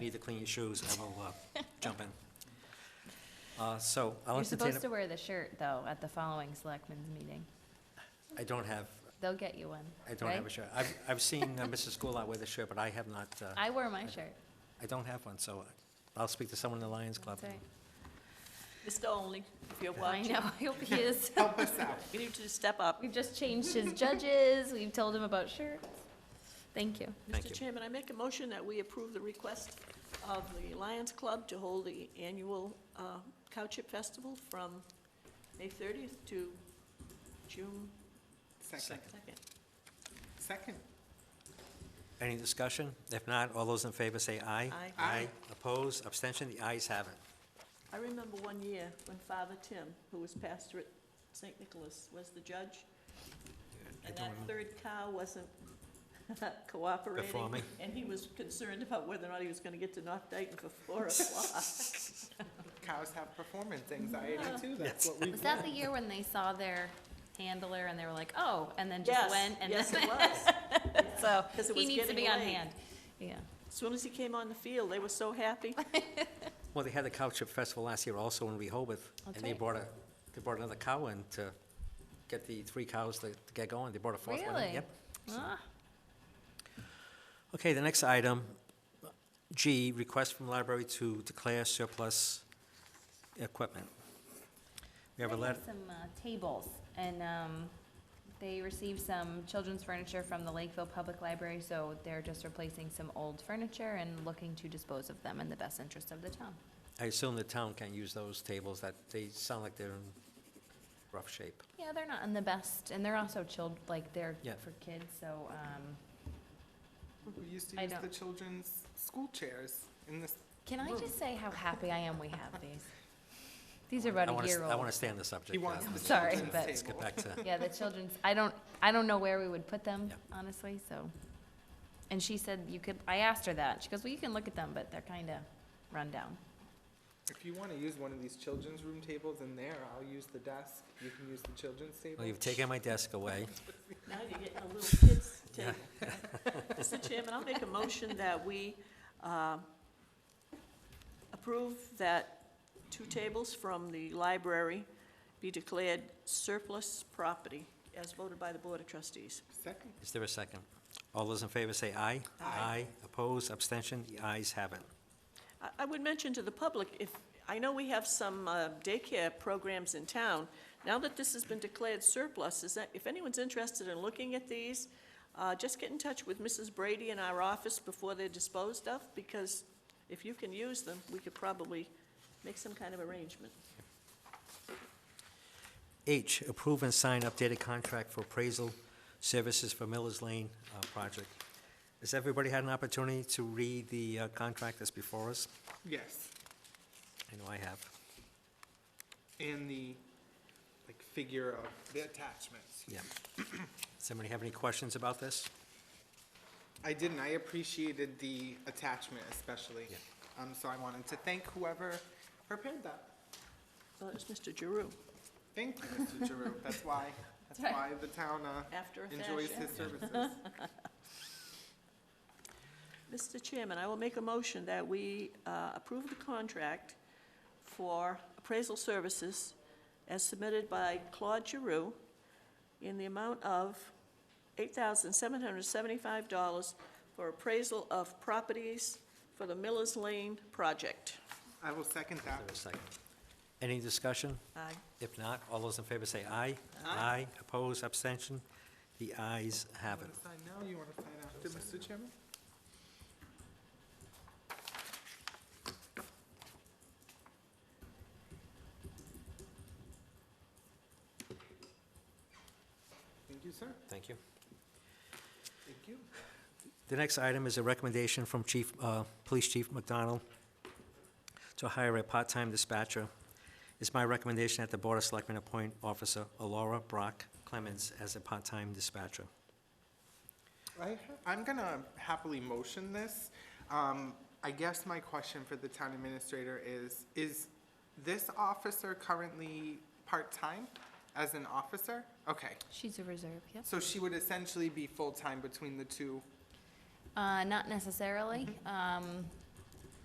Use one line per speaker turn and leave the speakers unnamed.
Need to clean your shoes, I will uh, jump in. Uh, So I'll
You're
entertain,
supposed to
a-
wear the shirt, though, at the following selectmen's meeting.
I don't have,
They'll get you one.
I don't have a
right?
shirt. I've, I've seen uh, Mrs. Goulart with a shirt, but I have not, uh,
I wore my shirt.
I don't have one, so I'll speak to someone in the Lions Club.
That's right.
Mr. Only, if you're
I
watching,
know, I hope he is.
Help us out.
you need to step up.
We've just changed his judges, we've told him about shirts. Thank you.
Thank you.
Mr. Chairman, I make a motion that we approve the request of the Lions Club to hold the annual uh, Cowship Festival from May 30th to June
Second.
2nd.
Second.
Any discussion? If not, all those in favor say aye.
Aye.
Aye.
Opposed, abstention, the ayes have it.
I remember one year when Father Tim, who was pastor at St. Nicholas, was the judge, and that third cow wasn't cooperating.
Performing.
And he was concerned about whether or not he was gonna get to North Dayton for four o'clock.
Cows have performance anxiety too, that's what we've
Was that the
learned.
year when they saw their handler and they were like, oh, and then just
Yes,
went? and
yes,
then-
it was.
So,
'Cause it
he
was
needs to
getting
be on
late.
hand. Yeah.
As Soon as he came on the field, they were so happy.
Well, they had the Cow Chip Festival last year also in Rehoboth, and
That's
they
right.
brought a, they brought another cow in to get the three cows to to get going. They brought a fourth one in.
Really?
Yep.
Ah,
Okay, the next item, G, request from library to declare surplus equipment. We have a
I
letter,
Some uh, tables, and um, they received some children's furniture from the Lakeville Public Library, so they're just replacing some old furniture and looking to dispose of them in the best interest of the town.
I assume the town can use those tables, that they sound like they're in rough shape.
Yeah, they're not in the best, and they're also chilled, like, they're
Yeah.
for kids, so, um,
We used to
I
use the
don't-
children's school chairs in this,
can I just say how happy I am we have these? These are
I
about a
wanna s-
year
I want
old.
to stay on the subject.
he
uh,
wants the
Sorry,
children's
but-
Let's get
table.
back to,
Yeah, the children's, I don't, I don't know where we would put them,
Yeah.
honestly, so. And she said you could, I asked her that, she goes, well, you can look at them, but they're kinda run down.
If you wanna use one of these children's room tables in there, I'll use the desk, you can use the children's table.
well, Oh, you've taken my desk away.
Now you're getting a little kid's table. Mr. Chairman, I'll make a motion that we um, approve that two tables from the library be declared surplus property as voted by the Board of Trustees.
Second.
Is there a second? All those in favor say aye. Aye. Oppose, abstention, the ayes have it.
I- I would mention to the public, if, I know we have some uh, daycare programs in town. Now that this has been declared surplus, is that, if anyone's interested in looking at these, uh, just get in touch with Mrs. Brady in our office before they're disposed of, because if you can use them, we could probably make some kind of arrangement.
H, approve and sign updated contract for appraisal services for Miller's Lane uh, project. Has everybody had an opportunity to read the uh, contract that's before us?
Yes,
I know I have.
and the, like, figure of the attachments.
Yeah. Somebody have any questions about this?
I didn't, I appreciated the attachment especially.
Yeah.
Um, so I wanted to thank whoever prepared that.
Well, Uh, it's Mr. Giroux.
Thank you, Mr. Giroux. That's why, that's why the town, uh,
After a
enjoys
fashion.
his services.
Mr. Chairman, I will make a motion that we uh, approve the contract for appraisal services as submitted by Claude Giroux in the amount of $8,775 for appraisal of properties for the Miller's Lane project.
I will second
Is
that.
there a second? Any discussion?
Aye.
If not, all those in favor say aye.
Aye.
Oppose, abstention, the ayes have
You
it.
wanna sign now, you wanna sign after, Mr. Chairman? Thank you, sir.
Thank you.
Thank you.
The next item is a recommendation from Chief, uh, Police Chief McDonald to hire a part-time dispatcher. It's my recommendation that the Board of Selectmen appoint Officer Alora Brock Clemens as a part-time dispatcher.
I, have- I'm gonna happily motion this. Um, I guess my question for the town administrator is, is this officer currently part-time as an officer? Okay,
She's a reserve, yes.
so she would essentially be full-time between the two.
Uh, not necessarily. Um,